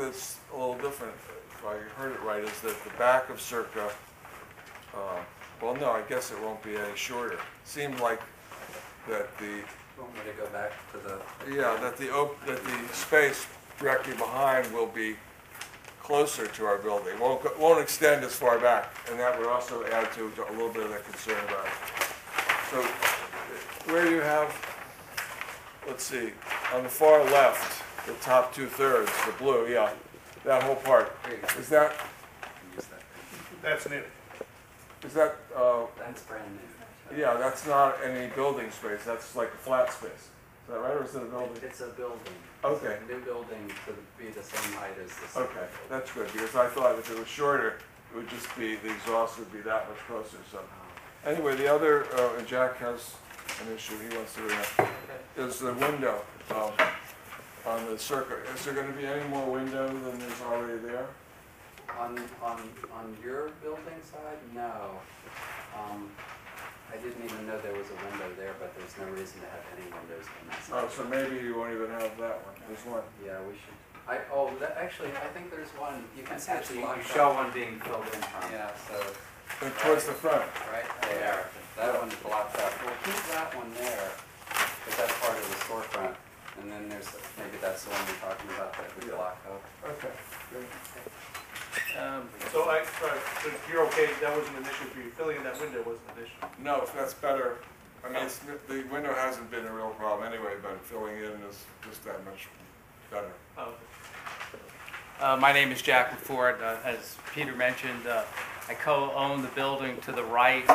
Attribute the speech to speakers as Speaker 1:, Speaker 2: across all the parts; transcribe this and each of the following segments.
Speaker 1: that's a little different, if I heard it right, is that the back of Circa, uh, well, no, I guess it won't be any shorter. Seemed like that the,
Speaker 2: Want me to go back to the,
Speaker 1: yeah, that the, op- that the space directly behind will be closer to our building, won't, go- won't extend as far back, and that would also add to a little bit of that concern about it. So, where you have, let's see, on the far left, the top two-thirds, the blue, yeah, that whole part, is that,
Speaker 2: use that?
Speaker 3: That's new.
Speaker 1: is that, uh,
Speaker 2: That's brand new.
Speaker 1: yeah, that's not any building space, that's like a flat space. Is that right, or is it a building?
Speaker 2: It's a building.
Speaker 1: Okay.
Speaker 2: New building to be the same height as Uh, the.
Speaker 1: Okay, that's good, because I thought if it was shorter, it would just be, the exhaust would be that much closer, so. Anyway, the other, uh, and Jack has an issue he wants to bring up, is the window, um, on the circuit. Is there gonna be any more window than there's already there?
Speaker 2: On, on, on your building side, no. Um, I didn't even know there was a window there, but there's no reason to have any windows on that side.
Speaker 1: Oh, so maybe you won't even have that one, there's one.
Speaker 2: Yeah, we should, I, oh, that, actually, I think there's one, you can see it's
Speaker 4: Actually, you
Speaker 2: locked
Speaker 4: show
Speaker 2: up.
Speaker 4: one being filled in from.
Speaker 2: Yeah, so,
Speaker 1: And towards the front,
Speaker 2: right there, that one's blocked up. We'll keep that one there, because that's part of the storefront. And then there's, maybe that's the one we're talking about that we
Speaker 1: Yeah.
Speaker 2: block up.
Speaker 1: okay. good.
Speaker 3: So I, uh, so you're okay, that wasn't an issue for you, filling in that window wasn't an issue.
Speaker 1: No, if that's better, I mean, it's, the window hasn't been a real problem anyway, but filling in is just that much better.
Speaker 3: Oh,
Speaker 4: Uh, my name is Jack LaFord. Uh, as Peter mentioned, uh, I co-own the building to the right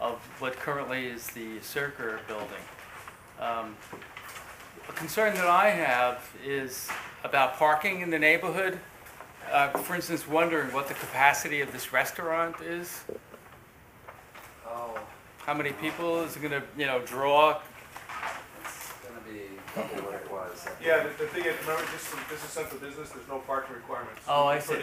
Speaker 4: of what currently is the Circa building. Um, a concern that I have is about parking in the neighborhood. Uh, for instance, wondering what the capacity of this restaurant is.
Speaker 2: Oh,
Speaker 4: How many people is it going to, you know, draw?
Speaker 2: it's gonna be probably what it was.
Speaker 3: Yeah, the, the thing is, remember, this is, this is central business, there's no parking requirements.
Speaker 4: Oh, I
Speaker 3: You can
Speaker 4: see.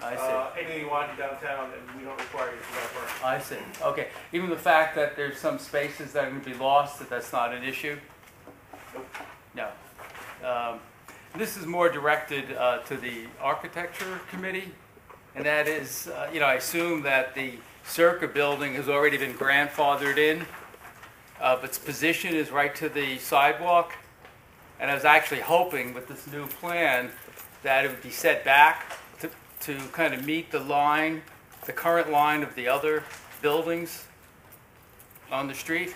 Speaker 3: Put
Speaker 4: I
Speaker 3: in,
Speaker 4: see.
Speaker 3: uh, anything you want in downtown, and we don't require you to have parking.
Speaker 4: I see. Okay. Even the fact that there's some spaces that are going to be lost, that that's not an issue? No. Um, This is more directed uh, to the architecture committee, and that is, uh, you know, I assume that the Circa building has already been grandfathered in. Uh, but Its position is right to the sidewalk, and I was actually hoping with this new plan that it would be set back to, to kind of meet the line, the current line of the other buildings on the street.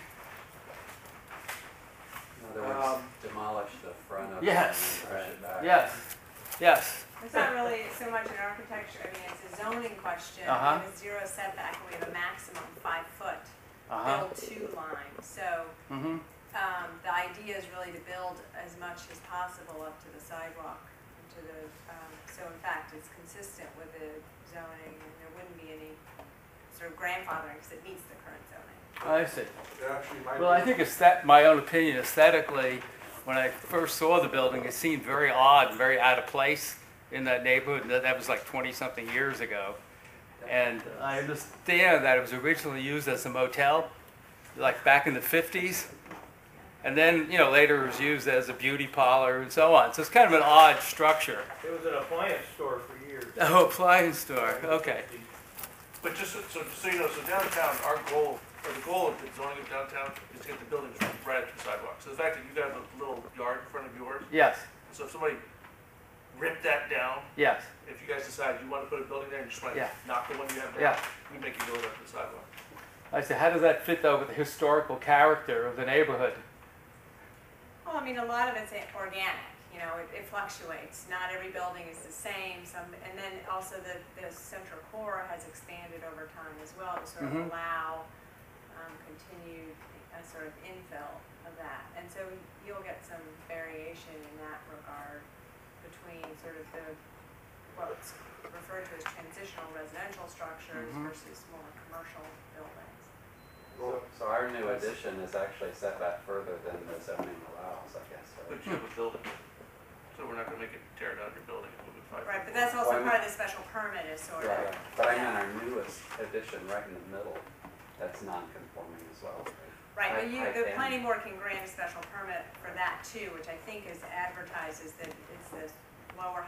Speaker 2: In other words,
Speaker 3: Um,
Speaker 2: demolish the front of it.
Speaker 4: Yes.
Speaker 2: and push it back.
Speaker 4: Yes, yes.
Speaker 5: It's not really so much an architecture, I mean, it's a zoning question. We
Speaker 4: Uh-huh.
Speaker 5: have a zero setback, and we have a maximum five foot,
Speaker 4: Uh-huh.
Speaker 5: build two line. So,
Speaker 4: Mm-hmm.
Speaker 5: um, the idea is really to build as much as possible up to the sidewalk, and to the, um, so in fact, it's consistent with the zoning, and there wouldn't be any sort of grandfathering, because it meets the current zoning.
Speaker 4: I see.
Speaker 1: It actually might
Speaker 4: Well, I
Speaker 1: be-
Speaker 4: think it's that, my own opinion aesthetically, when I first saw the building, it seemed very odd and very out of place in that neighborhood. and That that was like 20-something years ago. And I understand that it was originally used as a motel, like back in the 50s. And then, you know, later it was used as a beauty parlor and so on. So it's kind of an odd structure.
Speaker 6: It was an appliance store for years.
Speaker 4: Oh, appliance store, okay.
Speaker 3: But just so, so, just so you know, so downtown, our goal, or the goal of the zoning of downtown is to get the buildings right up to the sidewalk. So the fact that you got a little yard in front of yours,
Speaker 4: Yes,
Speaker 3: so if somebody ripped that down,
Speaker 4: yes,
Speaker 3: if you guys decide you wanna put a building there, and just wanna
Speaker 4: Yeah.
Speaker 3: knock the one you have down.
Speaker 4: yeah.
Speaker 3: We make you go up to the sidewalk.
Speaker 4: I said, how does that fit though with the historical character of the neighborhood?
Speaker 5: Well, I mean, a lot of it's organic, you know, it, it fluctuates. Not every building is the same, some, and then also the, the central core has expanded over time as well to sort of
Speaker 4: Mhm.
Speaker 5: allow, um, continued, uh, sort of infill of that. And so you'll get some variation in that regard between sort of the, what's referred to as transitional residential structures
Speaker 4: Mhm.
Speaker 5: versus more commercial buildings.
Speaker 2: So so our new addition is actually set back further than the zoning allows, I guess, right?
Speaker 3: But
Speaker 4: Hmm.
Speaker 3: you have a building, so we're not gonna make it tear down your building and move it five.
Speaker 5: Right,
Speaker 3: feet
Speaker 5: but that's
Speaker 2: Why-
Speaker 5: also part of the special permit is sort of.
Speaker 2: Right, but I meant our newest addition right in the middle, that's non-conforming as well. right?
Speaker 5: Right,
Speaker 2: I-
Speaker 5: but you,
Speaker 2: I
Speaker 5: the
Speaker 2: can.
Speaker 5: planning board can grant a special permit for that too, which I think is advertised as the, is the lower